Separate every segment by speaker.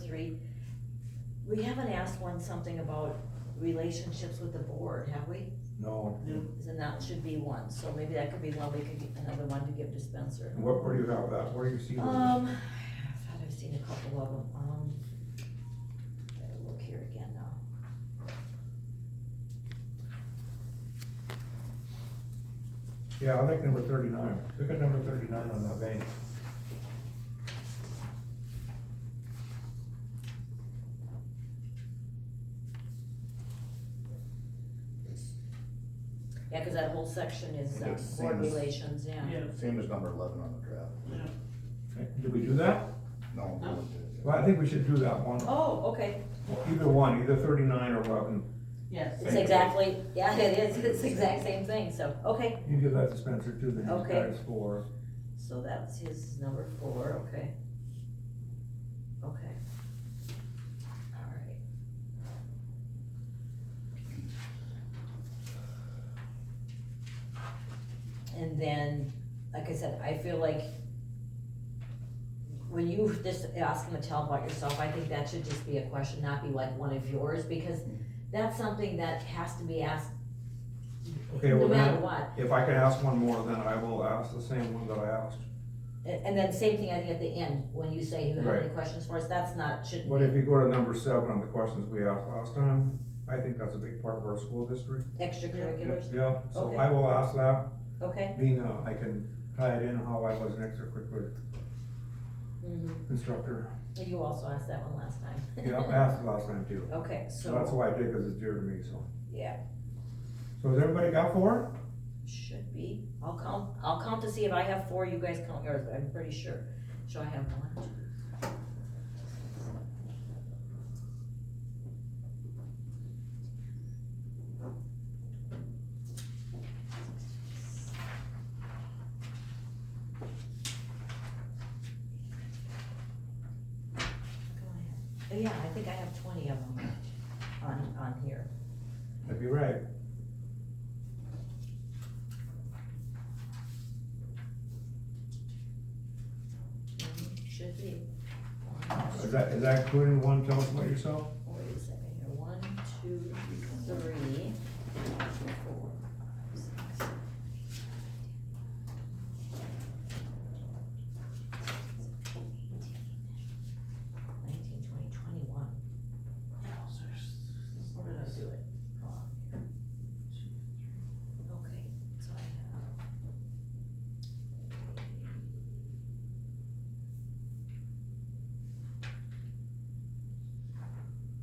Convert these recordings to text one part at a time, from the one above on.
Speaker 1: Street. We haven't asked one something about relationships with the board, have we?
Speaker 2: No,
Speaker 1: And that should be one, so maybe that could be one, we could get another one to give to Spencer.
Speaker 2: and what, where do you have that, where do you see
Speaker 1: Um, I
Speaker 2: those?
Speaker 1: thought I've seen a couple of them, um, better look here again now.
Speaker 2: Yeah, I like number thirty-nine, look at number thirty-nine on that bank.
Speaker 1: Yeah, cause that whole section is,
Speaker 3: And
Speaker 1: uh,
Speaker 3: it's
Speaker 1: board
Speaker 3: same as-
Speaker 1: relations, yeah.
Speaker 4: Yeah,
Speaker 3: Same as number eleven on the draft.
Speaker 4: yeah.
Speaker 2: Okay, Did we do that?
Speaker 3: No. we
Speaker 4: No.
Speaker 3: looked at it.
Speaker 2: Well, I think we should do that one,
Speaker 1: Oh, okay,
Speaker 2: either one, either thirty-nine or eleven,
Speaker 4: Yes.
Speaker 1: it's exactly, yeah, it is, it's the exact same thing, so, okay,
Speaker 2: you give that to Spencer too, then he's
Speaker 1: Okay.
Speaker 2: got his four.
Speaker 1: so that's his number four, okay. Okay. Alright. And then, like I said, I feel like when you just ask them to tell about yourself, I think that should just be a question, not be like one of yours, because that's something that has to be asked
Speaker 2: Okay,
Speaker 1: no
Speaker 2: well
Speaker 1: matter
Speaker 2: then,
Speaker 1: what.
Speaker 2: if I could ask one more, then I will ask the same one that I asked.
Speaker 1: And, and then same thing, I think at the end, when you say you have any
Speaker 2: Right.
Speaker 1: questions for us, that's not, shouldn't
Speaker 2: But if
Speaker 1: be
Speaker 2: you go to number seven on the questions we asked last time, I think that's a big part of our school history.
Speaker 1: extracurriculars,
Speaker 2: Yeah, so
Speaker 1: Okay.
Speaker 2: I will ask that,
Speaker 1: okay?
Speaker 2: being, uh, I can tie it in how I was an extracurricular
Speaker 1: Mhm.
Speaker 2: instructor.
Speaker 1: And You also asked that one last time.
Speaker 2: Yeah, I asked it last time too.
Speaker 1: Okay,
Speaker 2: So that's
Speaker 1: so,
Speaker 2: why I did, cause it's dear to me, so.
Speaker 1: yeah,
Speaker 2: So has everybody got four?
Speaker 1: should be, I'll count, I'll count to see if I have four, you guys count yours, but I'm pretty sure, so I have one. Go ahead. Yeah, I think I have twenty of them on, on here.
Speaker 2: That'd be right.
Speaker 1: Mhm, Should be.
Speaker 2: Is that, is that including one, tell us about yourself?
Speaker 1: Wait a second here, one, two, three, four, five, six, seven, eight, nineteen, twenty, twenty-one. We're gonna do it. Hold on here. Okay, so I have. Okay, wait,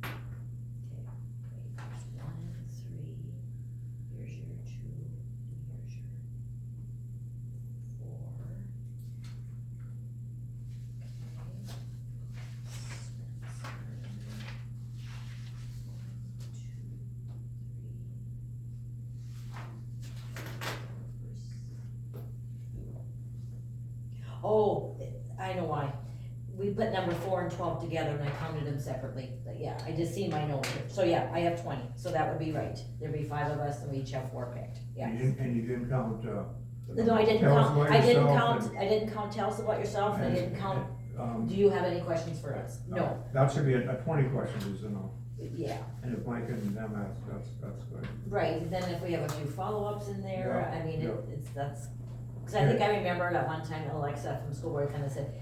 Speaker 1: there's one, three, here's your two, and here's your four. Okay. Spencer. One, two, three. Oh, I know why. We put number four and twelve together and I counted them separately, but yeah, I just see my note here, so yeah, I have twenty, so that would be right, there'd be five of us and we each have four picked, yeah.
Speaker 2: You didn't- And you didn't count, uh.
Speaker 3: The
Speaker 1: No, I didn't
Speaker 2: Tell us
Speaker 1: count,
Speaker 2: about
Speaker 1: I didn't
Speaker 2: yourself
Speaker 1: count, I didn't count, tell us about yourself, and I didn't count,
Speaker 2: Um,
Speaker 1: do you have any questions for us? No,
Speaker 2: that should be a, a twenty question, is enough.
Speaker 1: yeah,
Speaker 2: And if Mike and them ask, that's, that's good.
Speaker 1: right, then if we have a few follow-ups in there,
Speaker 2: Yeah,
Speaker 1: I mean, it-
Speaker 2: yeah.
Speaker 1: it's, that's, cause I think I remember at one time Alexa from school board kinda said,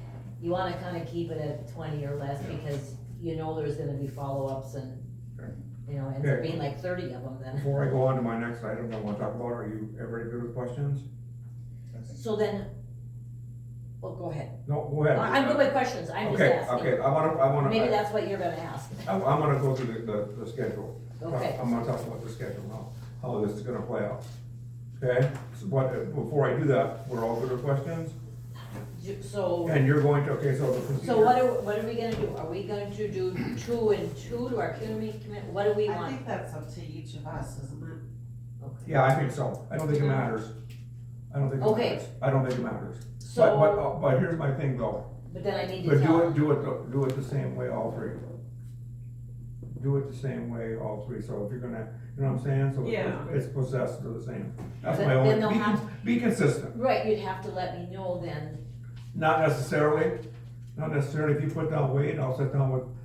Speaker 1: you wanna kinda keep it at twenty or less,
Speaker 2: Yeah.
Speaker 1: because you know there's gonna be follow-ups and,
Speaker 2: Sure.
Speaker 1: you know, ends up
Speaker 2: Okay.
Speaker 1: being like thirty of them then.
Speaker 2: Before I go on to my next item I wanna talk about, are you everybody good with questions?
Speaker 1: So then, well, go ahead,
Speaker 2: No, go ahead.
Speaker 1: I- I'm good with questions, I'm just
Speaker 2: Okay,
Speaker 1: asking,
Speaker 2: okay, I wanna, I wanna,
Speaker 1: maybe
Speaker 2: I-
Speaker 1: that's what you're gonna ask,
Speaker 2: I'm, I'm gonna go through the, the, the schedule.
Speaker 1: okay,
Speaker 2: I'm gonna talk about the schedule now, how this is gonna play out. Okay, so what, before I do that, we're all good with questions?
Speaker 1: Ju- so.
Speaker 2: And you're going to, okay, so the
Speaker 1: So what
Speaker 2: procedure,
Speaker 1: are, what are we gonna do? Are we going to do two and two to our community commit, what do we
Speaker 4: I
Speaker 1: want?
Speaker 4: think that's up to each of us, isn't
Speaker 1: Okay.
Speaker 2: yeah, I think so, I don't think it matters. I don't think it
Speaker 1: Okay.
Speaker 2: matters, I don't think it matters. But, but,
Speaker 1: So,
Speaker 2: uh, but here's my thing though,
Speaker 1: but then I need to
Speaker 2: but do
Speaker 1: tell,
Speaker 2: it, do it, do it the same way, all three. Do it the same way, all three, so if you're gonna, you know what I'm saying, so
Speaker 4: Yeah.
Speaker 2: it's it's possessed or the same. That's
Speaker 1: Then-
Speaker 2: my
Speaker 1: then they'll
Speaker 2: only, be,
Speaker 1: have-
Speaker 2: con- be consistent.
Speaker 1: right, you'd have to let me know then,
Speaker 2: Not necessarily, not necessarily, if you put down weight, I'll sit down with